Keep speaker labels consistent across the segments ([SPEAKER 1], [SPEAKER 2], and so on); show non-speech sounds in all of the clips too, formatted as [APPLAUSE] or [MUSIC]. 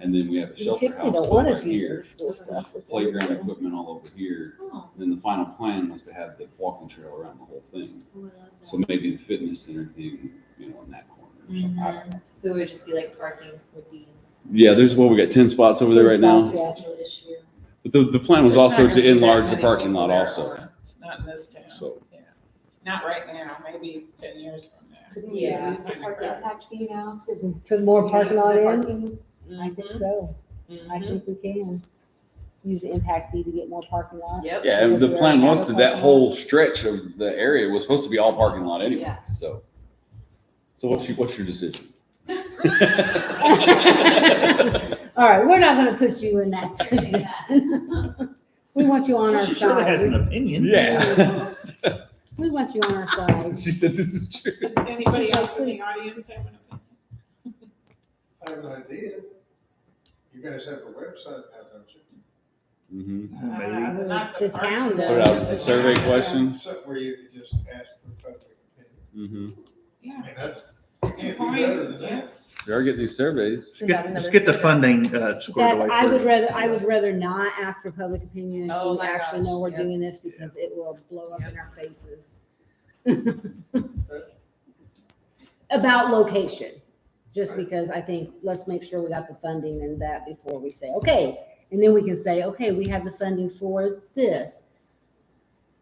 [SPEAKER 1] And then we have a
[SPEAKER 2] You
[SPEAKER 1] shelter
[SPEAKER 2] typically
[SPEAKER 1] house
[SPEAKER 2] don't want
[SPEAKER 1] over
[SPEAKER 2] us using
[SPEAKER 1] here,
[SPEAKER 2] the school stuff. with those,
[SPEAKER 1] playground
[SPEAKER 2] you know.
[SPEAKER 1] equipment all over here.
[SPEAKER 3] Oh,
[SPEAKER 1] And then the final plan was to have the walking trail around the whole thing.
[SPEAKER 3] well,
[SPEAKER 1] So maybe the fitness center thing, you know, in that corner. or something. I don't know.
[SPEAKER 3] mhm. So it would just be like parking would be
[SPEAKER 1] Yeah, there's, well, we got ten spots over there right
[SPEAKER 2] Ten
[SPEAKER 1] now.
[SPEAKER 2] spots, yeah.
[SPEAKER 3] a potential issue.
[SPEAKER 1] But the, the plan was
[SPEAKER 4] There's
[SPEAKER 1] also
[SPEAKER 4] not
[SPEAKER 1] to
[SPEAKER 4] gonna be that
[SPEAKER 1] enlarge the
[SPEAKER 4] many
[SPEAKER 1] parking
[SPEAKER 4] people
[SPEAKER 1] lot
[SPEAKER 4] there
[SPEAKER 1] also,
[SPEAKER 4] around. It's Not in this town,
[SPEAKER 1] so.
[SPEAKER 4] not right now, maybe ten years from now.
[SPEAKER 2] Couldn't we
[SPEAKER 3] Yeah.
[SPEAKER 4] It's
[SPEAKER 2] use-
[SPEAKER 4] not gonna
[SPEAKER 5] Park
[SPEAKER 4] grow.
[SPEAKER 5] impact fee now to
[SPEAKER 2] Put more parking lot in?
[SPEAKER 5] parking?
[SPEAKER 2] I think
[SPEAKER 1] Mm-hmm.
[SPEAKER 2] so. I think we can. Use the impact fee to get more parking lot.
[SPEAKER 3] Yep.
[SPEAKER 1] Yeah, and the
[SPEAKER 2] Because we
[SPEAKER 1] plan
[SPEAKER 2] already
[SPEAKER 1] was
[SPEAKER 2] have
[SPEAKER 1] to,
[SPEAKER 2] a
[SPEAKER 1] that
[SPEAKER 2] parking lot.
[SPEAKER 1] whole stretch of the area was supposed to be all parking lot anyway,
[SPEAKER 3] Yeah.
[SPEAKER 1] so. So what's your, what's your decision? [LAUGHS]
[SPEAKER 2] All right, we're not gonna put you
[SPEAKER 1] [LAUGHS]
[SPEAKER 2] in that position. [LAUGHS] We want you on our
[SPEAKER 6] She surely has an
[SPEAKER 2] side.
[SPEAKER 6] opinion.
[SPEAKER 1] Yeah.
[SPEAKER 2] We want you on our side.
[SPEAKER 1] [LAUGHS] She said this is true.
[SPEAKER 4] Does anybody else in the audience have an opinion?
[SPEAKER 7] I have an idea. You guys have a website now, don't you?
[SPEAKER 1] Mm-hmm.
[SPEAKER 6] Maybe.
[SPEAKER 4] Uh, not
[SPEAKER 2] The town
[SPEAKER 4] parks,
[SPEAKER 2] does.
[SPEAKER 1] Put
[SPEAKER 2] What
[SPEAKER 1] out
[SPEAKER 2] else?
[SPEAKER 1] the survey question.
[SPEAKER 7] Something where you could just ask for public opinion.
[SPEAKER 1] Mm-hmm.
[SPEAKER 4] Yeah,
[SPEAKER 7] I mean, that's, you can't do better than that.
[SPEAKER 1] They are getting these surveys.
[SPEAKER 6] Let's get, let's get the funding uh,
[SPEAKER 2] That's,
[SPEAKER 6] squared away
[SPEAKER 2] I would
[SPEAKER 6] first.
[SPEAKER 2] rather, I would rather not ask for public opinion
[SPEAKER 3] Oh
[SPEAKER 2] until we
[SPEAKER 3] my
[SPEAKER 2] actually know we're
[SPEAKER 3] gosh, yeah.
[SPEAKER 2] doing this because it will blow up in our faces. [LAUGHS] About location, just
[SPEAKER 7] Right.
[SPEAKER 2] because I think, let's make sure we got the funding and that before we say, okay. And then we can say, okay, we have the funding for this.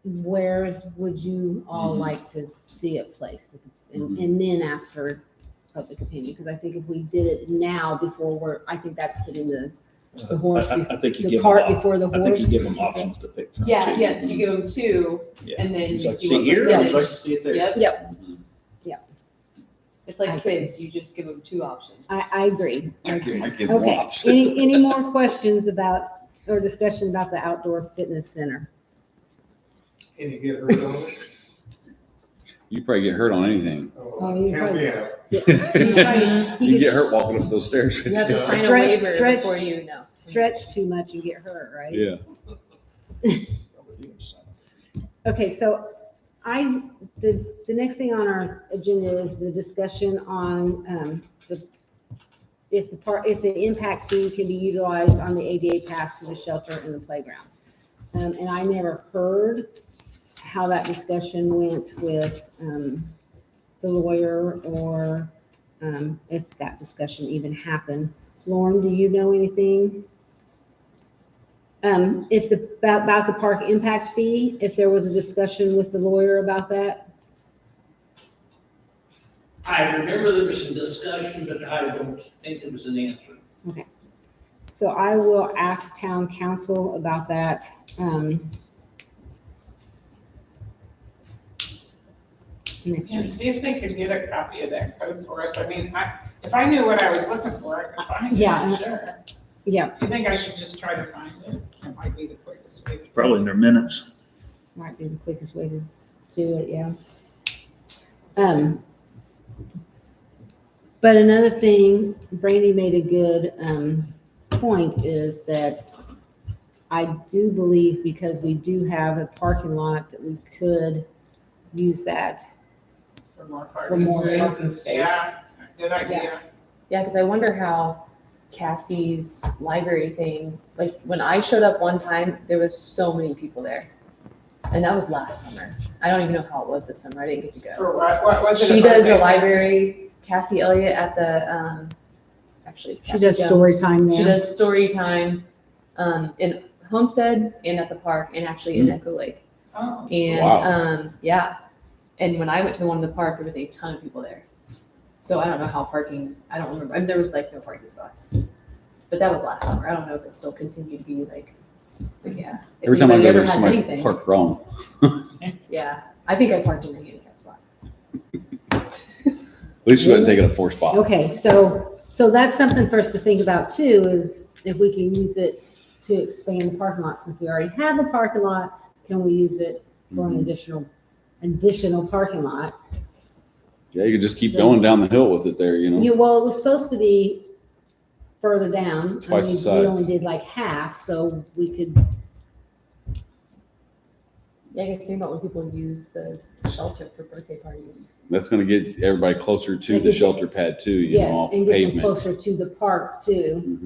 [SPEAKER 2] Where's, would you all
[SPEAKER 1] Mhm.
[SPEAKER 2] like to see it placed? And,
[SPEAKER 1] Mhm.
[SPEAKER 2] and then ask for public opinion, because I think if we did it now before we're, I think that's putting the, the horse,
[SPEAKER 6] Uh, I- I- I think you
[SPEAKER 2] the
[SPEAKER 6] give them
[SPEAKER 2] cart
[SPEAKER 6] op-
[SPEAKER 2] before the
[SPEAKER 6] I think you
[SPEAKER 2] horse.
[SPEAKER 6] give them options to pick from.
[SPEAKER 3] Yeah,
[SPEAKER 6] too.
[SPEAKER 3] yes, you give them two
[SPEAKER 6] Yeah.
[SPEAKER 3] and then
[SPEAKER 6] It's
[SPEAKER 3] you
[SPEAKER 6] like,
[SPEAKER 3] see what
[SPEAKER 6] here, I'd like to
[SPEAKER 3] percentage.
[SPEAKER 6] see it there.
[SPEAKER 3] Yep,
[SPEAKER 1] Mhm.
[SPEAKER 3] it's
[SPEAKER 2] I
[SPEAKER 3] like
[SPEAKER 2] agree.
[SPEAKER 3] kids, you just give them two options.
[SPEAKER 2] I, I agree.
[SPEAKER 1] I give, I give them
[SPEAKER 2] Okay,
[SPEAKER 1] options.
[SPEAKER 2] any, any more questions about, or discussion about the outdoor fitness center?
[SPEAKER 7] Can you get rid of it?
[SPEAKER 1] You probably get hurt on
[SPEAKER 2] [LAUGHS]
[SPEAKER 1] anything.
[SPEAKER 2] Oh, you
[SPEAKER 7] Count
[SPEAKER 2] probably-
[SPEAKER 7] me out.
[SPEAKER 2] You
[SPEAKER 1] You
[SPEAKER 2] could
[SPEAKER 1] get hurt walking up those stairs. [LAUGHS]
[SPEAKER 2] You have to
[SPEAKER 1] It's-
[SPEAKER 2] sign a
[SPEAKER 3] Sign a
[SPEAKER 2] Stretch, waiver
[SPEAKER 3] waiver
[SPEAKER 2] stretch. before
[SPEAKER 3] before you know.
[SPEAKER 2] Stretch too much and get hurt, right?
[SPEAKER 1] Yeah.
[SPEAKER 2] Okay, so I, the, the next thing on our agenda is the discussion on, um, the, if the part, if the impact fee can be utilized on the ADA pass to the shelter and the playground. Um, and I never heard how that discussion went with, um, the lawyer or, um, if that discussion even happened. Lauren, do you know anything? Um, if the, about, about the park impact fee, if there was a discussion with the lawyer about that?
[SPEAKER 8] I remember there was some discussion, but I don't think there was an answer.
[SPEAKER 2] So I will ask town council about that. Um. Next
[SPEAKER 4] And
[SPEAKER 2] week.
[SPEAKER 4] see if they could get a copy of that code for us. I mean, I, if I knew what I was looking for, I could find
[SPEAKER 2] Yeah.
[SPEAKER 4] it, sure.
[SPEAKER 2] Yeah,
[SPEAKER 4] You think I should just try to find it? That might be the quickest way.
[SPEAKER 6] Probably in their minutes.
[SPEAKER 2] might be the quickest way to do it, yeah. Um. But another thing, Brandy made a good, um, point is that I do believe because we do have a parking lot that we could use that
[SPEAKER 4] For more
[SPEAKER 2] for
[SPEAKER 4] parking
[SPEAKER 2] more
[SPEAKER 4] space.
[SPEAKER 2] parking space.
[SPEAKER 4] Yeah, good idea.
[SPEAKER 3] Yeah, because I wonder how Cassie's library thing, like when I showed up one time, there was so many people there. And that was last summer. I don't even know how it was this summer. I didn't get to go.
[SPEAKER 4] For what, what was it?
[SPEAKER 3] She
[SPEAKER 4] about
[SPEAKER 3] does
[SPEAKER 4] that?
[SPEAKER 3] the library, Cassie Elliott at the, um, actually. it's
[SPEAKER 2] She
[SPEAKER 3] Cassie
[SPEAKER 2] does story
[SPEAKER 3] Jones.
[SPEAKER 2] time
[SPEAKER 3] She
[SPEAKER 2] there.
[SPEAKER 3] does story time, um, in Homestead and at the park and actually
[SPEAKER 2] Mm.
[SPEAKER 3] in Echo Lake.
[SPEAKER 4] Oh,
[SPEAKER 3] And
[SPEAKER 1] Wow.
[SPEAKER 3] um, yeah, and when I went to the one in the park, there was a ton of people there. So I don't know how parking. I don't remember. I mean, there was like no parking spots, but that was last summer. I don't know if it still continued to be like. But yeah, if
[SPEAKER 1] Every time I
[SPEAKER 3] anybody
[SPEAKER 1] go
[SPEAKER 3] ever
[SPEAKER 1] there,
[SPEAKER 3] has
[SPEAKER 1] somebody
[SPEAKER 3] anything,
[SPEAKER 1] parked wrong.
[SPEAKER 3] Yeah, I think I parked in the handicap spot.
[SPEAKER 1] At least you wouldn't take it up four spots.
[SPEAKER 2] Okay, so, so that's something for us to think about too, is if we can use it to expand the parking lot, since we already have a parking lot, can we use it for an
[SPEAKER 1] Mhm.
[SPEAKER 2] additional, additional parking lot?
[SPEAKER 1] Yeah, you could just keep going down the hill with it there, you know?
[SPEAKER 2] Yeah, well, it was supposed to be further down. I
[SPEAKER 1] Twice the
[SPEAKER 2] mean, We
[SPEAKER 1] size.
[SPEAKER 2] only did like half, so we could,
[SPEAKER 3] Yeah, I guess think about when people use the shelter for birthday parties.
[SPEAKER 1] That's gonna get everybody closer to the shelter pad too, you know,
[SPEAKER 2] yes,
[SPEAKER 1] off
[SPEAKER 2] and get them
[SPEAKER 1] pavement.
[SPEAKER 2] closer to the park too.
[SPEAKER 1] Mhm.